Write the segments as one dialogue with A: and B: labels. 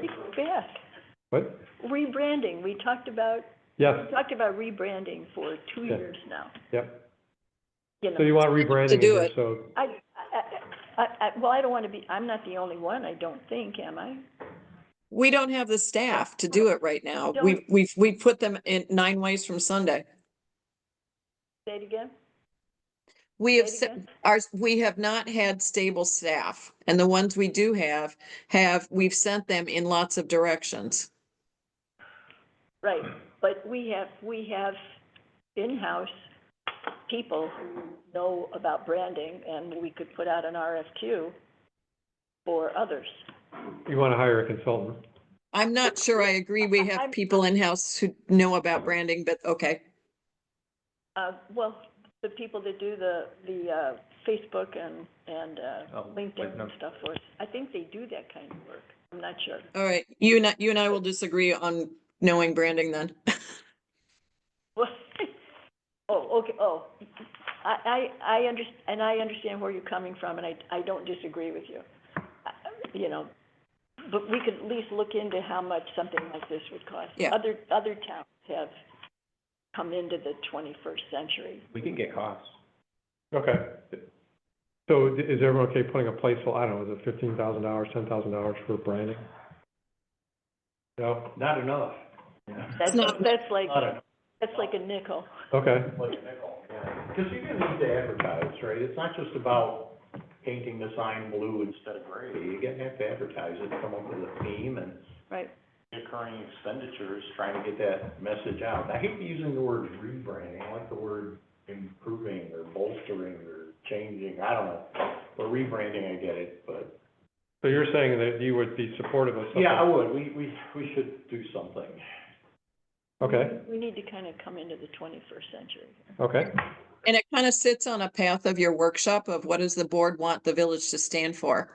A: Think back,
B: What?
A: rebranding, we talked about,
B: Yes,
A: we talked about rebranding for two
B: Yeah.
A: years now.
B: yep.
A: You
B: So
A: know,
B: you want rebranding
C: To
B: in
C: do
B: there,
C: it.
B: so,
A: I, I, I, I, well, I don't want to be, I'm not the only one, I don't think, am I?
C: We don't have the staff to do it right now.
A: Don't-
C: We, we've, we put them in nine ways from Sunday.
A: Say it again?
C: We have,
A: Say it
C: se-
A: again?
C: our, we have not had stable staff and the ones we do have, have, we've sent them in lots of directions.
A: Right, but we have, we have in-house people who know about branding, and we could put out an RFQ for others.
B: you want to hire a consultant.
C: I'm not sure I agree. We have
A: I'm-
C: people in-house who know about branding, but okay.
A: Uh, well, the people that do the, the, uh, Facebook and, and, uh,
D: Oh, like
A: LinkedIn
D: no-
A: and stuff for us, I think they do that kind of work, I'm not sure.
C: All right. You and, I- you and I will disagree on knowing branding then.
A: Well, oh, okay, oh, I, I, I under, and I understand where you're coming from, and I, I don't disagree with you. I- You know, but we could at least look into how much something like this would cost.
C: Yeah.
A: Other, other towns have come into the twenty-first century.
D: We can get costs.
B: Okay. So i- is everyone okay putting a placeholder, I don't know, is it fifteen thousand dollars, ten thousand dollars for branding? No?
D: Not enough.
A: That's,
C: not-
A: that's like,
D: Not enough.
A: that's like a nickel.
B: Okay,
E: Because you're gonna need to advertise, right? It's not just about painting the sign blue instead of gray. You're gonna have to advertise it, come up with a theme and
A: Right.
E: recurring expenditures, trying to get that message out. I hate using the word rebranding. I like the word improving or bolstering or changing, I don't know. But rebranding, I get it, but,
B: so you're saying that you would be supportive of something?
E: yeah, I would. We, we, we should do something.
B: Okay,
A: We need to kind of come into the twenty-first century.
B: okay,
C: And it kind of sits on a path of your workshop of what does the board want the village to stand for?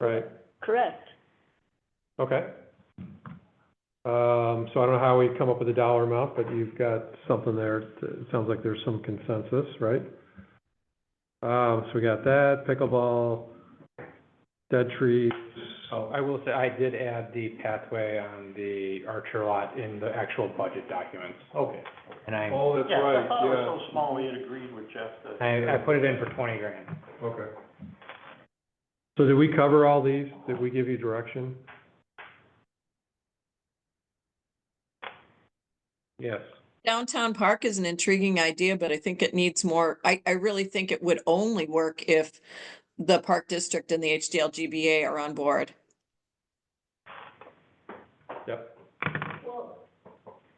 B: right,
A: Correct.
B: okay. Um, so I don't know how we come up with a dollar amount, but you've got something there, it sounds like there's some consensus, right? Um, so we got that, pickleball, dead trees,
F: Oh, I will say, I did add the pathway on the Archer lot in the actual budget documents,
E: Okay.
F: and I,
B: oh, that's
E: Yeah, I
B: right,
E: thought it was
B: yeah,
E: so small, we had agreed with Jeff that.
F: I, I put it in for twenty grand.
B: okay. So did we cover all these, did we give you direction?
F: Yes.
C: Downtown park is an intriguing idea, but I think it needs more, I, I really think it would only work if the park district and the HDLGBA are on board.
B: Yep,
A: Well,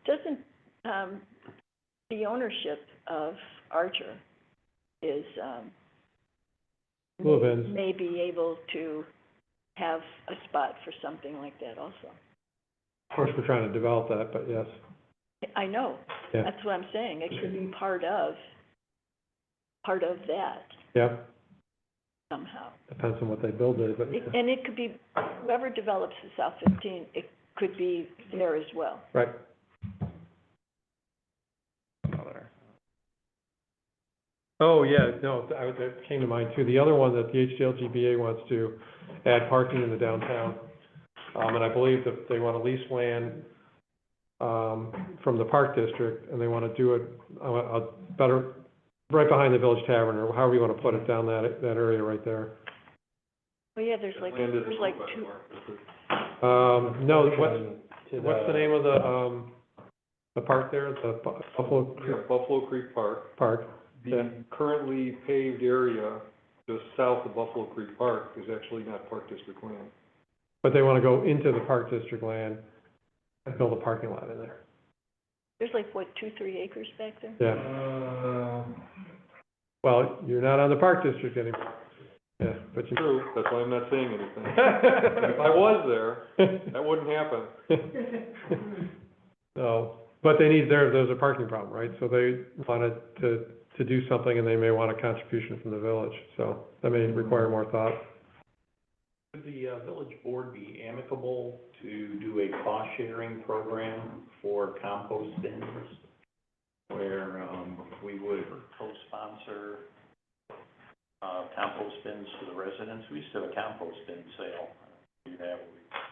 A: doesn't, um, the ownership of Archer is, um,
B: Blue
A: may be able to have a spot for something like that also.
B: of course, we're trying to develop that, but yes,
A: I know,
B: Yeah.
A: that's what I'm saying, it could be part of, part of that
B: yeah,
A: somehow.
B: depends on what they build it, but,
A: It- And it could be, whoever develops the South fifteen, it could be there as well.
B: right, Oh, yeah, no, th- I, that came to mind too. The other one that the HDLGBA wants to add parking in the downtown. Um, and I believe that they want to lease land, um, from the park district and they want to do it, uh, a better, right behind the Village Tavern or however you want to put it down that, that area right there.
A: Well, Oh, yeah, there's like, there's like two,
B: Um, no, what's,
F: To
B: what's the name of the, um, the park there, the Bu- Buffalo
G: Yeah,
B: Creek
G: Buffalo Creek Park,
B: Park? Yeah.
G: the currently paved area just south of Buffalo Creek Park is actually not Park District land.
B: But they want to go into the park district land and build a parking lot in there.
A: there's like, what, two, three acres back there?
B: Yeah, Uh, well, you're not on the park district anymore. Yeah, but you.
G: True, that's why I'm not saying anything. If I was there, that wouldn't happen.
B: So, but they need, there, there's a parking problem, right? So they wanted to, to do something and they may want a contribution from the village, so that may require more thought.
E: Could the uh, village board be amicable to do a cost-sharing program for compost bins? Where, um, we would co-sponsor, uh, compost bins for the residents? We used to have a compost bin sale. Do that, where we